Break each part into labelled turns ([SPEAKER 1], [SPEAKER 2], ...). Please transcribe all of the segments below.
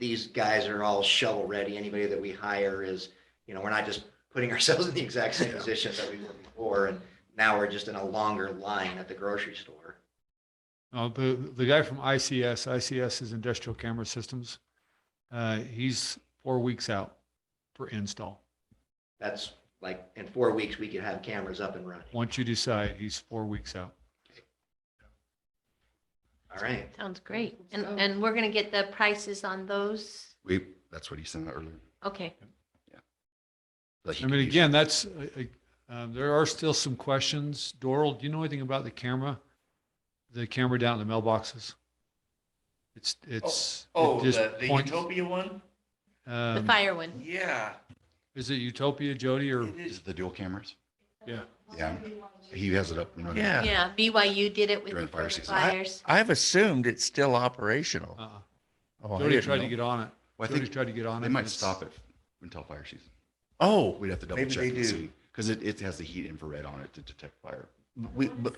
[SPEAKER 1] these guys are all shovel ready. Anybody that we hire is, you know, we're not just putting ourselves in the exact same
[SPEAKER 2] Yeah.
[SPEAKER 1] position that we were before. And now we're just in a longer line at the grocery store.
[SPEAKER 2] Uh, the, the guy from ICS, ICS is Industrial Camera Systems. Uh, he's four weeks out for install.
[SPEAKER 1] That's like, in four weeks, we could have cameras up and running.
[SPEAKER 2] Once you decide, he's four weeks out.
[SPEAKER 1] All right.
[SPEAKER 3] Sounds great. And,
[SPEAKER 4] So-
[SPEAKER 3] and we're going to get the prices on those.
[SPEAKER 5] We, that's what he sent out earlier.
[SPEAKER 3] Okay,
[SPEAKER 5] that he
[SPEAKER 2] I mean,
[SPEAKER 5] could use.
[SPEAKER 2] again, that's, uh, uh, um, there are still some questions. Doral, do you know anything about the camera? The camera down at the mailboxes? It's, it's. it
[SPEAKER 6] Oh,
[SPEAKER 2] just
[SPEAKER 6] the, the
[SPEAKER 2] points-
[SPEAKER 6] Utopia one?
[SPEAKER 3] the
[SPEAKER 2] um,
[SPEAKER 3] fire one.
[SPEAKER 6] Yeah.
[SPEAKER 2] Is it Utopia, Jody, or?
[SPEAKER 6] it
[SPEAKER 5] Is
[SPEAKER 6] is.
[SPEAKER 5] it the dual cameras?
[SPEAKER 2] Yeah.
[SPEAKER 5] Yeah. He has it up and running.
[SPEAKER 6] Yeah.
[SPEAKER 3] Yeah, BYU did it with
[SPEAKER 5] During
[SPEAKER 3] the
[SPEAKER 5] the fire
[SPEAKER 3] fire
[SPEAKER 5] season.
[SPEAKER 6] I-
[SPEAKER 3] fires.
[SPEAKER 6] I've assumed it's still operational.
[SPEAKER 2] uh-uh.
[SPEAKER 6] Oh, I
[SPEAKER 2] Jody
[SPEAKER 6] didn't
[SPEAKER 2] tried to
[SPEAKER 6] know.
[SPEAKER 2] get on it.
[SPEAKER 5] Well, I
[SPEAKER 2] Jody
[SPEAKER 5] think
[SPEAKER 2] tried to get on it.
[SPEAKER 5] they might
[SPEAKER 2] and it's-
[SPEAKER 5] stop it until fire season.
[SPEAKER 6] Oh,
[SPEAKER 5] We'd have to double
[SPEAKER 6] Maybe
[SPEAKER 5] check
[SPEAKER 6] they
[SPEAKER 5] and
[SPEAKER 6] do.
[SPEAKER 5] see. Because it, it has the heat infrared on it to detect fire.
[SPEAKER 6] we, but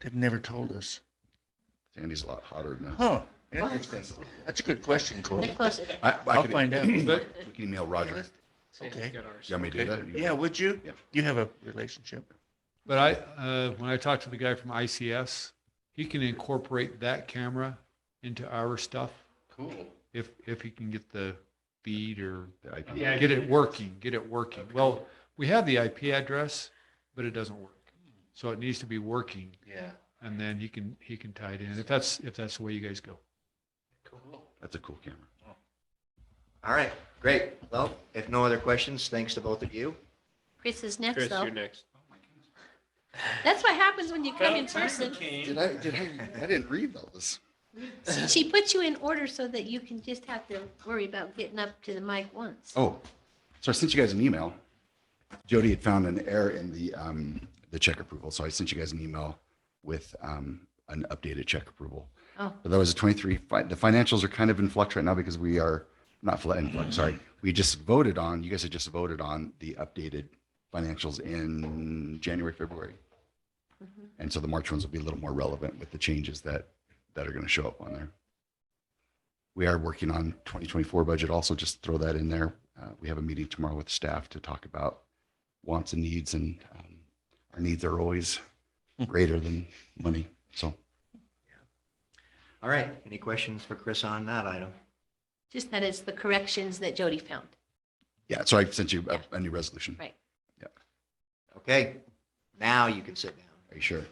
[SPEAKER 6] they've never told us.
[SPEAKER 5] Sandy's a lot hotter than.
[SPEAKER 6] Huh. Interesting. That's a good question,
[SPEAKER 3] They're
[SPEAKER 6] Corey.
[SPEAKER 3] close.
[SPEAKER 5] I, I
[SPEAKER 6] I'll
[SPEAKER 5] could,
[SPEAKER 6] find out.
[SPEAKER 2] But
[SPEAKER 5] we can email Roger.
[SPEAKER 6] Okay.
[SPEAKER 5] You want me to do that?
[SPEAKER 6] Yeah, would you?
[SPEAKER 5] Yeah.
[SPEAKER 6] You have a relationship.
[SPEAKER 2] But I, uh, when I talked to the guy from ICS, he can incorporate that camera into our stuff
[SPEAKER 5] Cool.
[SPEAKER 2] if, if he can get the feed or
[SPEAKER 5] The IP.
[SPEAKER 2] uh, get it working, get it working. Well, we have the IP address, but it doesn't work. So it needs to be working
[SPEAKER 6] Yeah.
[SPEAKER 2] and then he can, he can tie it in if that's, if that's the way you guys go.
[SPEAKER 6] Cool.
[SPEAKER 5] That's a cool camera.
[SPEAKER 1] All right. Great. Well, if no other questions, thanks to both of you.
[SPEAKER 3] Chris is next
[SPEAKER 7] Chris,
[SPEAKER 3] though.
[SPEAKER 7] you're next.
[SPEAKER 3] That's what happens when you come in person.
[SPEAKER 5] Did I, did I, I didn't read all this.
[SPEAKER 3] She puts you in order so that you can just have to worry about getting up to the mic once.
[SPEAKER 5] Oh, so I sent you guys an email. Jody had found an error in the, um, the check approval. So I sent you guys an email with, um, an updated check approval.
[SPEAKER 3] Oh.
[SPEAKER 5] But that was a 23. Fi- The financials are kind of in flux right now because we are not fl- in flux, sorry. We just voted on, you guys had just voted on the updated financials in January, February. And so the March ones will be a little more relevant with the changes that, that are going to show up on there. We are working on 2024 budget also, just throw that in there. Uh, we have a meeting tomorrow with staff to talk about wants and needs and um, our needs are always greater than money. So
[SPEAKER 1] All right. Any questions for Chris on that item?
[SPEAKER 3] Just that it's the corrections that Jody found.
[SPEAKER 5] Yeah, so I sent you a, a new resolution.
[SPEAKER 3] Right.
[SPEAKER 1] Okay. Now you can sit down.
[SPEAKER 5] Are you sure?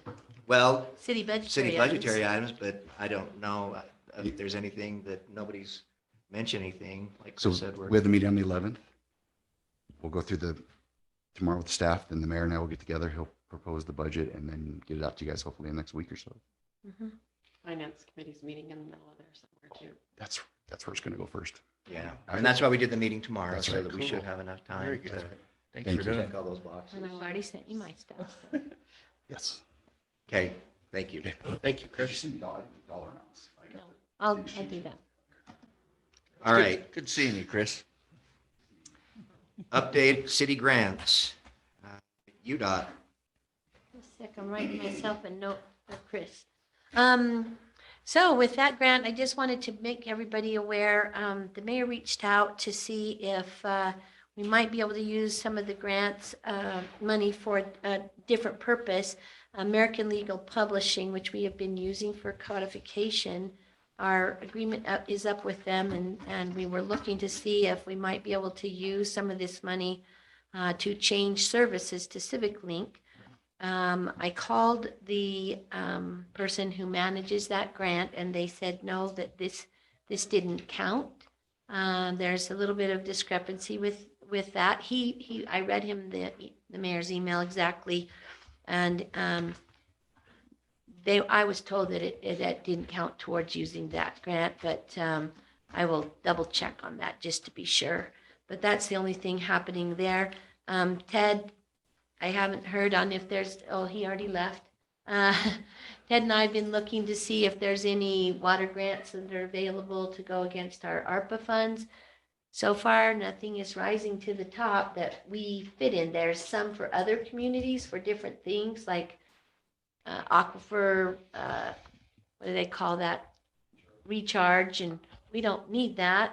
[SPEAKER 1] Well,
[SPEAKER 3] City budgetary.
[SPEAKER 1] city
[SPEAKER 3] items.
[SPEAKER 1] budgetary items, but I don't know uh, if there's anything that nobody's mentioned anything, like
[SPEAKER 5] So
[SPEAKER 1] Chris said. we're-
[SPEAKER 5] we have the meeting on the eleventh. We'll go through the, tomorrow with the staff, then the mayor and I will get together. He'll propose the budget and then get it out to you guys hopefully in the next week or so.
[SPEAKER 3] Mhm.
[SPEAKER 4] Finance committee's meeting in the middle of there somewhere too.
[SPEAKER 5] That's, that's where it's gonna go first.
[SPEAKER 1] Yeah, and that's why we did the meeting tomorrow,
[SPEAKER 5] That's
[SPEAKER 1] so
[SPEAKER 5] right.
[SPEAKER 1] that we should have enough
[SPEAKER 6] Very
[SPEAKER 1] time
[SPEAKER 6] good.
[SPEAKER 1] to
[SPEAKER 6] Thanks
[SPEAKER 5] Thank
[SPEAKER 6] for
[SPEAKER 5] you.
[SPEAKER 6] doing
[SPEAKER 1] check
[SPEAKER 6] it.
[SPEAKER 1] all those boxes.
[SPEAKER 3] And I've already sent you my stuff.
[SPEAKER 5] Yes.
[SPEAKER 1] Okay, thank you.
[SPEAKER 7] Thank you, Chris.
[SPEAKER 5] Dollar
[SPEAKER 3] No, I'll, I'll do that.
[SPEAKER 1] All right,
[SPEAKER 6] Good seeing you, Chris.
[SPEAKER 1] update city grants. Uh, UDOT,
[SPEAKER 3] Just a sec, I'm writing myself a note for Chris. Um, so with that grant, I just wanted to make everybody aware, um, the mayor reached out to see if, uh, we might be able to use some of the grants, uh, money for a different purpose. American Legal Publishing, which we have been using for codification, our agreement up- is up with them and, and we were looking to see if we might be able to use some of this money uh, to change services to Civic Link. Um, I called the, um, person who manages that grant and they said, no, that this, this didn't count. Um, there's a little bit of discrepancy with, with that. He, he, I read him the, the mayor's email exactly. And, um, they, I was told that it, it that didn't count towards using that grant, but, um, I will double check on that just to be sure. But that's the only thing happening there. Um, Ted I haven't heard on if there's, oh, he already left. Uh, Ted and I have been looking to see if there's any water grants that are available to go against our ARPA funds. So far, nothing is rising to the top that we fit in. There's some for other communities for different things like uh, aquifer, uh, what do they call that? Recharge and we don't need that.